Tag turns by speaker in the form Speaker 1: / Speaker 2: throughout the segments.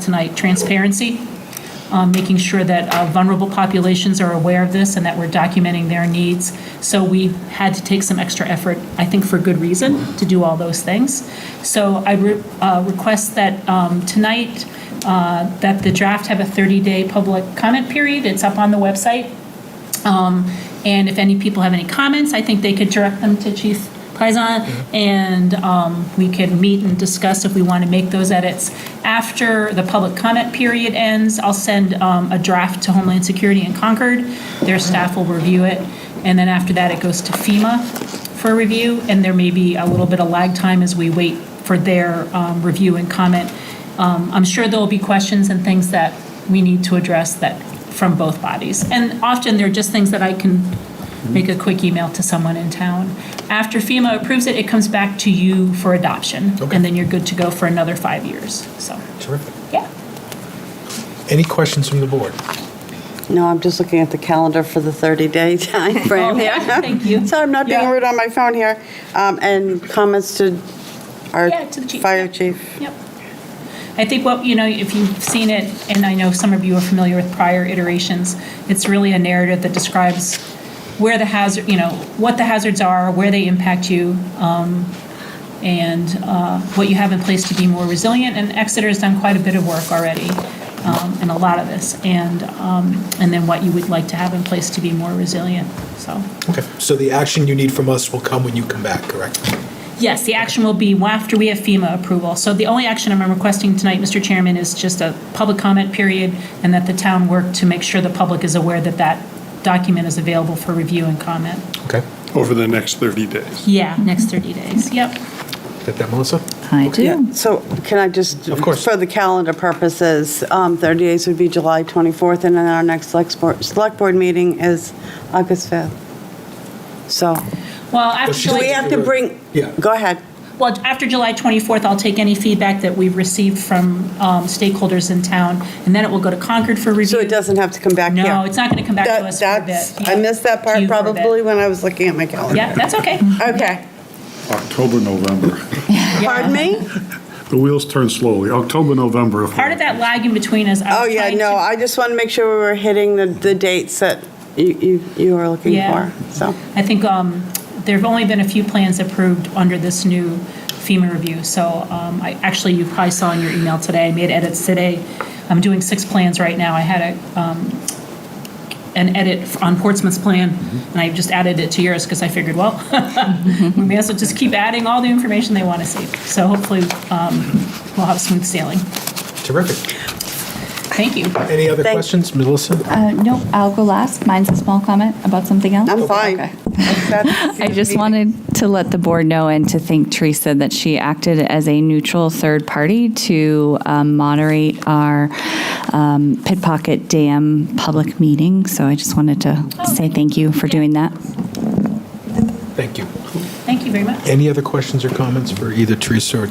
Speaker 1: tonight, transparency, um, making sure that uh, vulnerable populations are aware of this and that we're documenting their needs. So we had to take some extra effort, I think for good reason, to do all those things. So I re- uh, request that um, tonight, uh, that the draft have a 30-day public comment period. It's up on the website. And if any people have any comments, I think they could direct them to Chief Paisan, and um, we could meet and discuss if we want to make those edits. After the public comment period ends, I'll send um, a draft to Homeland Security in Concord. Their staff will review it, and then after that, it goes to FEMA for review, and there may be a little bit of lag time as we wait for their um, review and comment. Um, I'm sure there'll be questions and things that we need to address that, from both bodies. And often, they're just things that I can make a quick email to someone in town. After FEMA approves it, it comes back to you for adoption.
Speaker 2: Okay.
Speaker 1: And then you're good to go for another five years, so,
Speaker 2: Terrific.
Speaker 1: yeah.
Speaker 2: Any questions from the board?
Speaker 3: No, I'm just looking at the calendar for the 30-day time frame.
Speaker 1: Okay, Oh, thank you.
Speaker 3: So I'm not being
Speaker 1: Yeah.
Speaker 3: rude on my phone here. Um, And comments to our
Speaker 1: Yeah, to the chief,
Speaker 3: fire
Speaker 1: yeah.
Speaker 3: chief.
Speaker 1: Yep. I think what, you know, if you've seen it, and I know some of you are familiar with prior iterations, it's really a narrative that describes where the hazard, you know, what the hazards are, where they impact you, um, and uh, what you have in place to be more resilient. And Exeter's done quite a bit of work already um, in a lot of this, and, um, and then what you would like to have in place to be more resilient, so.
Speaker 2: Okay, so the action you need from us will come when you come back, correct?
Speaker 1: Yes, the action will be after we have FEMA approval. So the only action I'm requesting tonight, Mr. Chairman, is just a public comment period and that the town work to make sure the public is aware that that document is available for review and comment.
Speaker 2: Okay,
Speaker 4: over the next 30 days.
Speaker 1: Yeah, next 30 days. Yep.
Speaker 2: got that, Melissa?
Speaker 5: I do.
Speaker 3: So can I just?
Speaker 2: Of course.
Speaker 3: For the calendar purposes, um, 30 days would be July 24th, and then our next select board- select board meeting is August 5th. So
Speaker 1: Well, after
Speaker 2: she's-
Speaker 3: do we
Speaker 1: July,
Speaker 3: have to bring?
Speaker 2: Yeah.
Speaker 3: Go ahead.
Speaker 1: well, after July 24th, I'll take any feedback that we've received from um, stakeholders in town, and then it will go to Concord for review.
Speaker 3: So it doesn't have to come back here?
Speaker 1: No, it's not going to come back to
Speaker 3: That-
Speaker 1: us for a
Speaker 3: That's,
Speaker 1: bit.
Speaker 3: I missed that
Speaker 1: To
Speaker 3: part
Speaker 1: you for a bit.
Speaker 3: probably when I was looking at my calendar.
Speaker 1: Yeah, that's okay.
Speaker 3: Okay.
Speaker 4: October, November.
Speaker 3: Pardon me?
Speaker 4: The wheels turn slowly. October, November. if-
Speaker 1: Part of that lag in between is I
Speaker 3: Oh,
Speaker 1: was
Speaker 3: yeah,
Speaker 1: trying
Speaker 3: no,
Speaker 1: to-
Speaker 3: I just want to make sure we were hitting the, the dates that you, you, you were looking
Speaker 1: Yeah.
Speaker 3: for, so.
Speaker 1: I think um, there have only been a few plans approved under this new FEMA review. So um, I, actually, you probably saw in your email today, I made edits today. I'm doing six plans right now. I had a, um, an edit on Portsmouth's plan,
Speaker 4: Mm-hmm.
Speaker 1: and I just added it to yours because I figured, well, we may as well just keep adding all the information they want to see. So hopefully, um, we'll have smooth sailing.
Speaker 2: Terrific.
Speaker 1: Thank you.
Speaker 2: Any other
Speaker 3: Thank-
Speaker 2: questions, Melissa?
Speaker 5: Uh, Nope, I'll go last. Mine's a small comment about something else.
Speaker 3: I'm fine.
Speaker 5: Okay.
Speaker 3: That's-
Speaker 5: I just wanted to let the board know and to thank Teresa that she acted as a neutral third party to um, moderate our um, Pitpocket Dam public meeting. So I just wanted to say Oh, thank you for doing that.
Speaker 2: Thank you.
Speaker 1: Thank you very much.
Speaker 2: Any other questions or comments for either Teresa or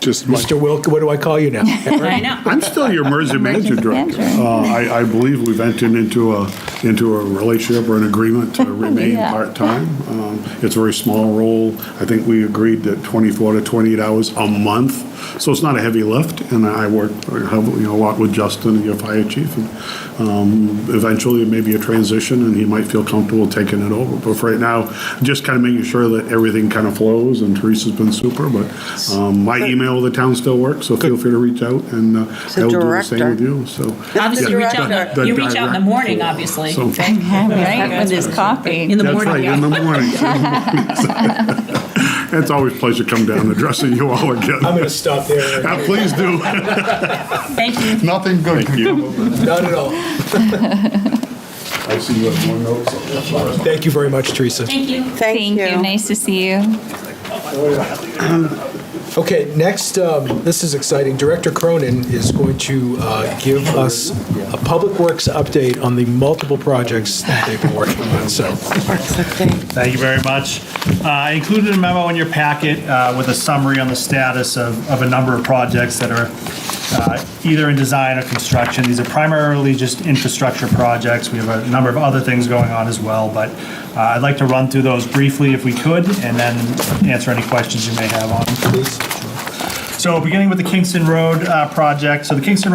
Speaker 4: Just my-
Speaker 2: Mr. Wilk? What do I call you now?
Speaker 1: I know.
Speaker 4: I'm still your emergency manager
Speaker 5: Emergency
Speaker 4: director.
Speaker 5: manager.
Speaker 4: Uh, I, I believe we've entered into a, into a relationship or an agreement to remain
Speaker 5: Yeah.
Speaker 4: part-time. Um, It's a very small role. I think we agreed that 24 to 28 hours a month. So it's not a heavy lift, and I work, heavily, you know, a lot with Justin, your fire chief. and, um, Eventually, it may be a transition, and he might feel comfortable taking it over. But for right now, just kind of making sure that everything kind of flows, and Teresa's been super, but um, my email with the town still works, so feel free to reach out, and uh,
Speaker 3: It's a
Speaker 4: I will do the same
Speaker 3: director.
Speaker 4: with you, so.
Speaker 1: Obviously, you reach out, in the- you reach out in the morning, obviously.
Speaker 4: So-
Speaker 5: With his coffee.
Speaker 1: In the
Speaker 4: That's
Speaker 1: morning.
Speaker 4: right,
Speaker 1: yeah.
Speaker 4: in the morning. It's always a pleasure to come down and address you all
Speaker 2: I'm going
Speaker 4: again.
Speaker 2: to stop there.
Speaker 4: Yeah, Please do.
Speaker 1: Thank you.
Speaker 4: Nothing good can come of it.
Speaker 2: Not at all.
Speaker 4: I see you have more notes.
Speaker 2: Thank you very much, Teresa.
Speaker 1: Thank you.
Speaker 3: Thank you.
Speaker 5: Nice to see you.
Speaker 2: Okay, next, um, this is exciting. Director Cronin is going to uh, give us a Public Works update on the multiple projects that they've been working on, so.
Speaker 6: Thank you very much. Uh, I included a memo in your packet uh, with a summary on the status of, of a number of projects that are uh, either in design or construction. These are primarily just infrastructure projects. We have a number of other things going on as well, but uh, I'd like to run through those briefly if we could, and then answer any questions you may have on them. So beginning with the Kingston Road uh, project, so the Kingston Road